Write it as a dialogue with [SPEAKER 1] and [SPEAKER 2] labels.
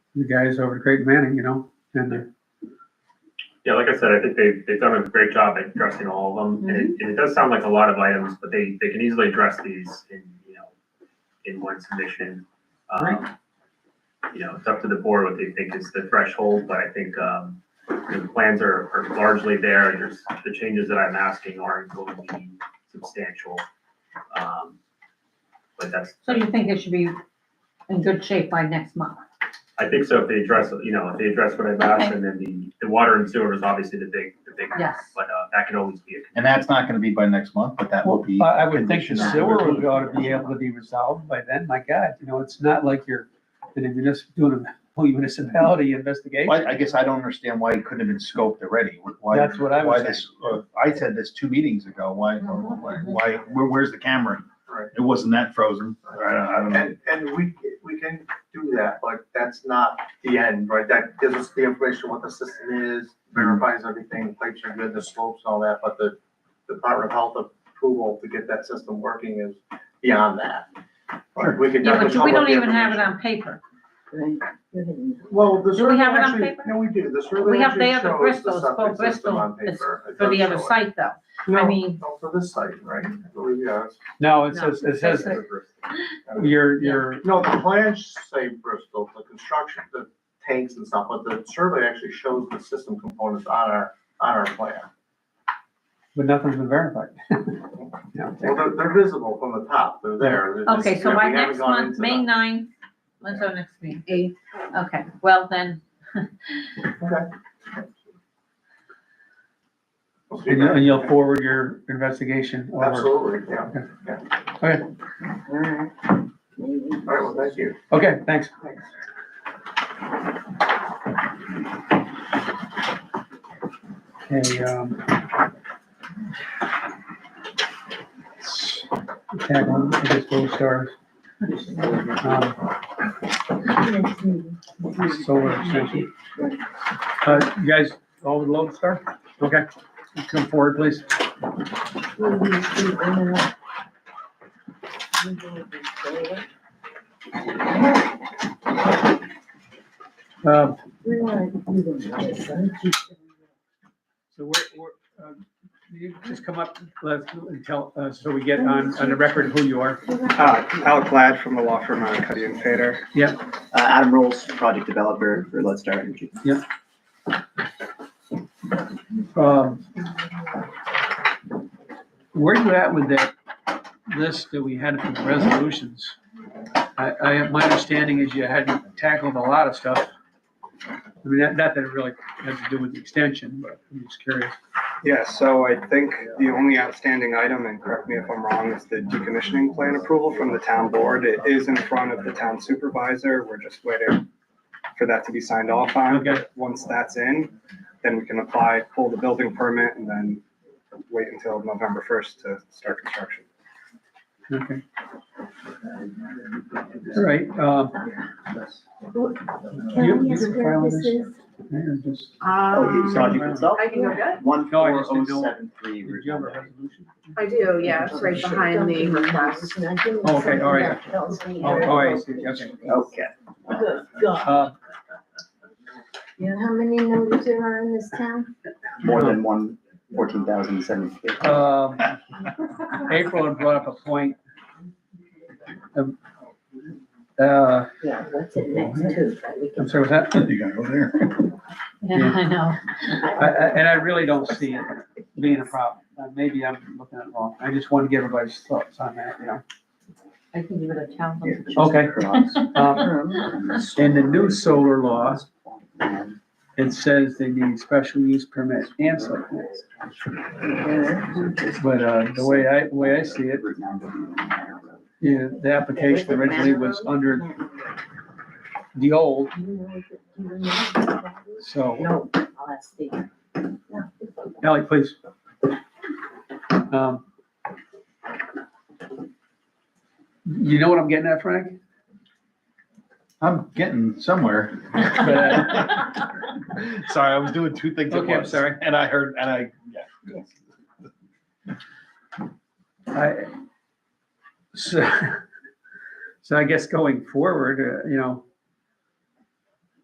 [SPEAKER 1] the guys over at Great Manning, you know, and they're
[SPEAKER 2] Yeah, like I said, I think they've, they've done a great job at addressing all of them, and it, and it does sound like a lot of items, but they, they can easily address these in, you know, in one submission. Um, You know, it's up to the board what they think is the threshold, but I think, um, the plans are, are largely there, and there's, the changes that I'm asking aren't going to be substantial. Um, But that's,
[SPEAKER 3] So you think it should be in good shape by next month?
[SPEAKER 2] I think so, if they address, you know, if they address what I've asked, and then the, the water and sewer is obviously the big, the big,
[SPEAKER 3] Yes.
[SPEAKER 2] but, uh, that can always be a
[SPEAKER 4] And that's not gonna be by next month, but that will be.
[SPEAKER 1] Well, I I would think the
[SPEAKER 4] conditioned.
[SPEAKER 1] sewer would ought to be able to be resolved by then, my God, you know, it's not like you're in a municipal, doing a whole municipality investigation.
[SPEAKER 4] Why, I guess I don't understand why it couldn't have been scoped already, why.
[SPEAKER 1] That's what I was
[SPEAKER 4] why this- uh, I said this two meetings ago, why, why, why- where, where's the camera?
[SPEAKER 5] Right.
[SPEAKER 4] It wasn't that frozen, I don't, I don't know.
[SPEAKER 5] And, and we, we can do that, but that's not the end, right? That gives us the information, what the system is, verifies everything, plates are good, the slopes, all that, but the Department of Health approval to get that system working is beyond that.
[SPEAKER 4] Sure.
[SPEAKER 5] We can
[SPEAKER 3] Yeah,
[SPEAKER 5] definitely
[SPEAKER 3] but we
[SPEAKER 5] come
[SPEAKER 3] don't
[SPEAKER 5] up with the
[SPEAKER 3] even have it
[SPEAKER 5] information.
[SPEAKER 3] on paper.
[SPEAKER 5] Well,
[SPEAKER 3] Do
[SPEAKER 5] the
[SPEAKER 3] we
[SPEAKER 5] survey
[SPEAKER 3] have it on
[SPEAKER 5] actually,
[SPEAKER 3] paper?
[SPEAKER 5] no, we do, the survey
[SPEAKER 3] We have,
[SPEAKER 5] actually
[SPEAKER 3] they have the
[SPEAKER 5] shows the
[SPEAKER 3] Bristol's, for
[SPEAKER 5] septic system
[SPEAKER 3] Bristol
[SPEAKER 5] on
[SPEAKER 3] is
[SPEAKER 5] paper. It
[SPEAKER 3] for the
[SPEAKER 5] does
[SPEAKER 3] other
[SPEAKER 5] show it.
[SPEAKER 3] site though. I
[SPEAKER 5] No,
[SPEAKER 3] mean-
[SPEAKER 5] no, for this site, right? I believe, yeah, it's-
[SPEAKER 1] No, it says, it says,
[SPEAKER 3] No.
[SPEAKER 1] your, your,
[SPEAKER 5] No, the plans say Bristol, the construction, the tanks and stuff, but the survey actually shows the system components on our, on our plan.
[SPEAKER 1] but nothing's been verified. Yeah.
[SPEAKER 5] Well, they're, they're visible from the top, they're there. they're just-
[SPEAKER 3] Okay,
[SPEAKER 5] yeah,
[SPEAKER 3] so
[SPEAKER 5] we
[SPEAKER 3] by
[SPEAKER 5] haven't
[SPEAKER 3] next
[SPEAKER 5] gone
[SPEAKER 3] month,
[SPEAKER 5] into
[SPEAKER 3] May
[SPEAKER 5] that.
[SPEAKER 3] ninth, when's our next meeting? Eight. Okay, well then,
[SPEAKER 5] Okay. We'll see
[SPEAKER 1] And you-
[SPEAKER 5] that.
[SPEAKER 1] and you'll forward your investigation over.
[SPEAKER 5] Absolutely, yeah.
[SPEAKER 1] Okay,
[SPEAKER 5] All right, well, thank you.
[SPEAKER 1] okay, thanks. Okay, um. Tag on, I guess we'll start. Um, Solar extension. Uh, you guys, all with load star? Okay, come forward, please. Um, so we're, we're, um, you just come up, let's, and tell, uh, so we get on, on the record who you are.
[SPEAKER 6] Uh, Alec Glad from the law firm on Cuddy and Fader.
[SPEAKER 1] Yep.
[SPEAKER 6] Uh, Adam Rolls, project developer for Let's Start Energy.
[SPEAKER 1] Um, where you at with that list that we had for the resolutions? I, I, my understanding is you had tackled a lot of stuff. I mean, not, not that it really has to do with the extension, but I'm just curious.
[SPEAKER 6] Yeah, so I think the only outstanding item, and correct me if I'm wrong, is the decommissioning plan approval from the town board. It is in front of the town supervisor. We're just waiting for that to be signed off on.
[SPEAKER 1] Okay.
[SPEAKER 6] Once that's in, then we can apply, pull the building permit, and then wait until November first to start construction.
[SPEAKER 1] Okay. All right, uh,
[SPEAKER 7] Can
[SPEAKER 1] You-
[SPEAKER 7] I
[SPEAKER 1] you
[SPEAKER 7] ask
[SPEAKER 1] can
[SPEAKER 7] where
[SPEAKER 1] file
[SPEAKER 7] this
[SPEAKER 1] this.
[SPEAKER 7] is?
[SPEAKER 1] man, just,
[SPEAKER 4] Oh,
[SPEAKER 8] Um, I can go good.
[SPEAKER 6] One
[SPEAKER 1] No, I
[SPEAKER 6] four
[SPEAKER 1] just
[SPEAKER 6] oh
[SPEAKER 1] didn't know-
[SPEAKER 6] seven three.
[SPEAKER 1] did you have a resolution?
[SPEAKER 8] I do, yeah, it's right behind the request.
[SPEAKER 1] Oh, okay, all right. Oh, oh, I see, okay.
[SPEAKER 6] Okay.
[SPEAKER 1] Uh,
[SPEAKER 7] How many numbers there are in this town?
[SPEAKER 6] More than one, fourteen thousand seven fifty.
[SPEAKER 4] Uh,
[SPEAKER 1] um, April had brought up a point. Um, Uh,
[SPEAKER 9] Yeah, what's it next to?
[SPEAKER 1] I'm sorry, was that?
[SPEAKER 4] You gotta go there.
[SPEAKER 3] yeah, I know.
[SPEAKER 1] I, I, and I really don't see it being a problem. Uh, Maybe I'm looking at it wrong. I just want to get everybody's thoughts on that, you know.
[SPEAKER 3] I can give it a challenge.
[SPEAKER 1] Okay. Um, in the new solar law, it says they need special use permit and site plans. But, uh, the way I, the way I see it, you know, the application originally was under the old, so,
[SPEAKER 9] No, I'll ask Steve.
[SPEAKER 1] Ally, please. Um, You know what I'm getting at, Frank?
[SPEAKER 4] I'm getting somewhere.
[SPEAKER 1] But, uh,
[SPEAKER 4] Sorry, I was doing two things at
[SPEAKER 1] Okay, I'm
[SPEAKER 4] once,
[SPEAKER 1] sorry.
[SPEAKER 4] And I heard, and I, yeah.
[SPEAKER 1] I, so, so I guess going forward, uh, you know,